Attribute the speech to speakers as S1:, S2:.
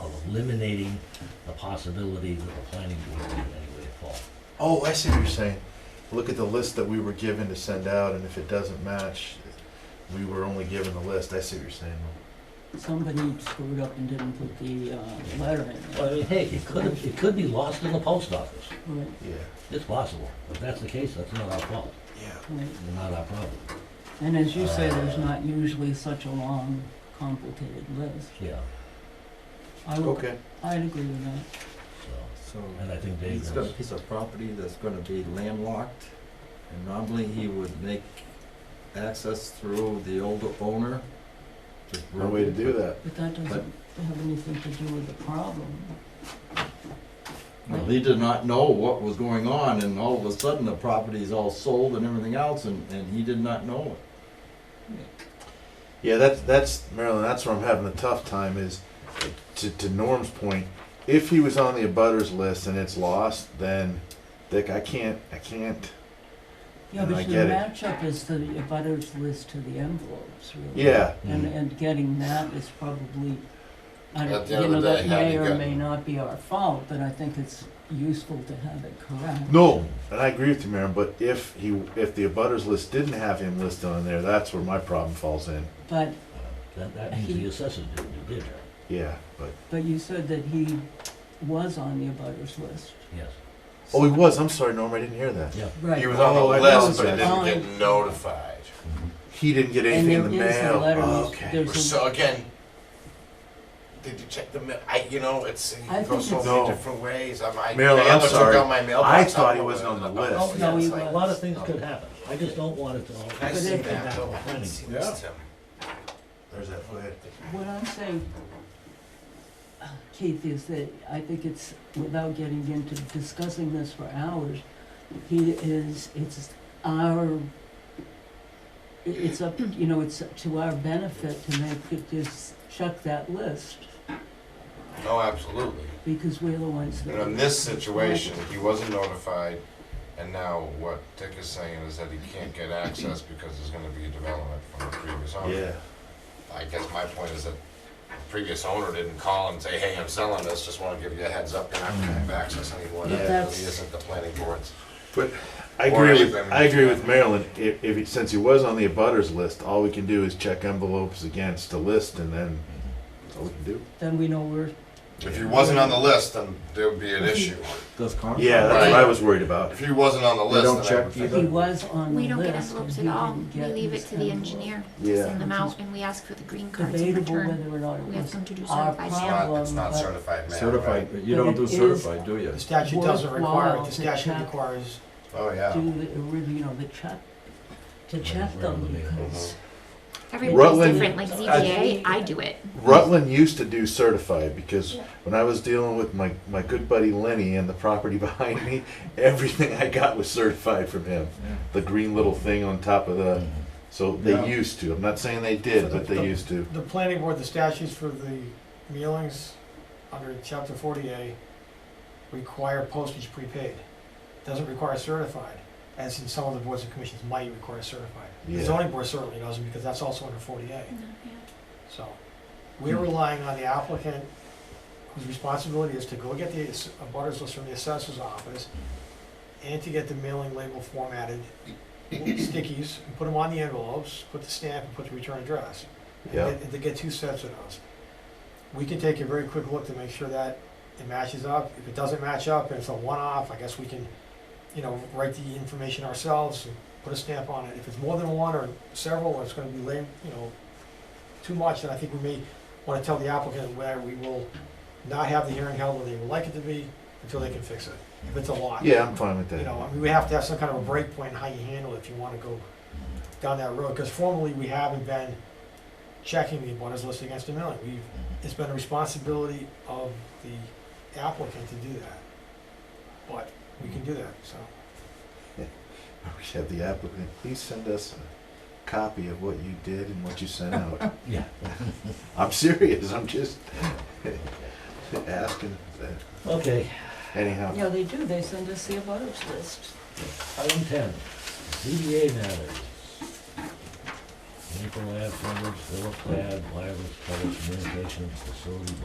S1: eliminating the possibility that the planning board would in any way fall.
S2: Oh, I see what you're saying. Look at the list that we were given to send out, and if it doesn't match, we were only given the list. I see what you're saying.
S3: Somebody screwed up and didn't put the, uh, letter in.
S1: Well, I mean, hey, it could, it could be lost in the post office.
S3: Right,
S2: Yeah.
S1: It's possible. If that's the case, that's not our fault,
S2: Yeah.
S3: right.
S1: not our problem.
S3: And as you say, there's not usually such a long, complicated list.
S1: Yeah,
S3: I would,
S2: Okay.
S3: I'd agree with that.
S1: so,
S4: So
S1: and I think Dave
S4: he's got a
S1: knows.
S4: piece of property that's gonna be landlocked, and normally he would make access through the older owner. just
S2: No way to do that.
S3: But that doesn't have anything to do with the problem.
S4: Well, he did not know what was going on, and all of a sudden, the property's all sold and everything else, and, and he did not know it.
S2: Yeah, that's that's Marilyn. That's where I'm having a tough time. Is to, to Norm's point, if he was on the abutters list and it's lost, then Dick, I can't, I can't.
S3: Yeah,
S2: And I
S3: but the
S2: get it.
S3: matchup is the abutters list to the envelopes, really.
S2: Yeah,
S3: And,
S1: Mhm.
S3: and getting that is probably, I
S5: At
S3: don't,
S5: the
S3: you
S5: end of
S3: know,
S5: the
S3: that
S5: day, how
S3: may
S5: you
S3: or
S5: got-
S3: may not be our fault, but I think it's useful to have it correct.
S2: no, and I agree with you, Marilyn. But if he, if the abutters list didn't have him listed on there, that's where my problem falls in.
S3: But,
S1: Uh, That, that means the assessors didn't do their job,
S2: Yeah, but
S3: but you said that he was on the abutters list.
S1: yes,
S2: oh, he was. I'm sorry, Norm. I didn't hear that.
S1: yeah.
S3: Right.
S5: He was
S2: Oh,
S5: on
S2: I
S5: the list,
S2: know
S5: but
S3: that.
S5: didn't get notified.
S2: He didn't get
S3: And
S2: anything in
S3: there
S2: the
S3: is a
S2: mail.
S3: letter,
S2: Oh,
S3: which-
S2: okay.
S3: there's a,
S5: So again, did you check the mail? I, you know, it's, it
S3: I
S5: can go
S3: think
S5: so
S2: it's-
S5: many
S2: No.
S5: different ways. I might.
S2: Marilyn,
S5: I
S2: I'm
S5: ever took
S2: sorry.
S5: out my mailbox,
S2: I thought he
S5: don't
S2: wasn't
S5: know
S2: on the
S5: where-
S2: list.
S5: Oh, yeah,
S3: No,
S5: it's
S3: he
S5: like-
S1: A lot of things could happen. I just don't want it to all.
S5: I
S3: But
S5: see
S3: it-
S5: that, though. I didn't see
S4: Yeah.
S5: this, um,
S2: There's that foot.
S3: what I'm saying, uh, Keith, is that I think it's, without getting into discussing this for hours, he is, it's our, i- it's up, you know, it's to our benefit to make it just check that list,
S5: No, Oh, absolutely.
S3: because we're the ones that.
S5: And in this situation, he wasn't notified, and now what Dick is saying is that he can't get access because there's gonna be a development from the previous owner.
S2: Yeah.
S5: I guess my point is that the previous owner didn't call and say, hey, I'm selling this, just wanna give you a heads up, you're not gonna have access anymore. That
S2: Yeah.
S5: really
S3: That's-
S5: isn't the planning board's.
S2: I
S5: Or
S2: agree with
S5: anything.
S2: I agree with Marilyn. If, if he, since he was on the abutters list, all we can do is check envelopes against the list, and then that's all we can do.
S3: Then we know we're,
S5: If he wasn't on the list, then there would be an issue.
S4: Does Concom?
S2: Yeah, that's what
S5: Right.
S2: I was worried about.
S5: If he wasn't on the
S4: They
S5: list,
S4: don't
S5: then I would
S4: check
S5: think.
S3: he was on the
S6: We
S3: list.
S6: don't get envelopes
S3: and
S6: at
S3: he
S6: all.
S3: didn't
S6: We
S3: get
S6: leave it
S3: his
S6: to the
S3: envelope.
S6: engineer to
S2: Yeah.
S6: send them out, and we ask for the green cards in
S3: Debatable
S6: return.
S3: whether or not it
S6: We ask
S3: was
S6: them to do
S3: our
S6: certified
S5: It's
S6: mail.
S3: problem,
S5: not, it's not
S3: but-
S5: certified mail,
S4: Certified,
S5: right?
S4: but you don't do
S3: But it is-
S4: certified, do you?
S7: The statute doesn't require it,
S3: Worthwhile
S7: the
S3: to
S7: statute
S3: check.
S7: requires,
S5: Oh, yeah.
S3: do the, re- you know, the check, to
S1: Yeah,
S3: check
S1: we're
S3: them,
S1: on the mail.
S3: because
S2: Rutland-
S6: Everybody's different, like ZBA, I do it.
S2: Rutland used to do certified because when I was dealing with my, my good buddy Lenny and the property behind me, everything I got was certified from him. The green little thing on top of the. So they
S4: Yeah.
S2: used to. I'm not saying they did, but they used to.
S7: the planning board, the statutes for the mailings under chapter forty A require postage prepaid. Doesn't require certified, as in some of the boards and commissions might require certified. The
S2: Yeah.
S7: zoning board certainly doesn't, because that's also under forty A,
S6: No, yeah.
S7: so. We're relying on the applicant, whose responsibility is to go get the ass- a butters list from the assessor's office, and to get the mailing label formatted, stickies, and put them on the envelopes, put the stamp, and put the return address.
S2: Yeah.
S7: And They get two sets of those. We can take a very quick look to make sure that it matches up. If it doesn't match up, and it's a one-off, I guess we can, you know, write the information ourselves and put a stamp on it. If it's more than one or several, or it's gonna be lame, you know, too much, then I think we may wanna tell the applicant where we will not have the hearing held where they would like it to be until they can fix it, if it's a lot.
S2: Yeah, I'm fine with that.
S7: You know, I mean, we have to have some kind of a break point in how you handle it if you wanna go down that road, because formally, we haven't been checking the abutters list against the milling. We've, it's been a responsibility of the applicant to do that. But we can do that, so.
S2: We should have the applicant, please send us a copy of what you did and what you sent out.
S1: Yeah.
S2: I'm serious, I'm just asking that.
S1: Okay,
S2: Anyhow,
S3: Yeah, they do, they send us the abutters list.
S1: item ten, ZBA matters. Maple Ave, Phillips, Phillips Ave, wireless telecommunications facility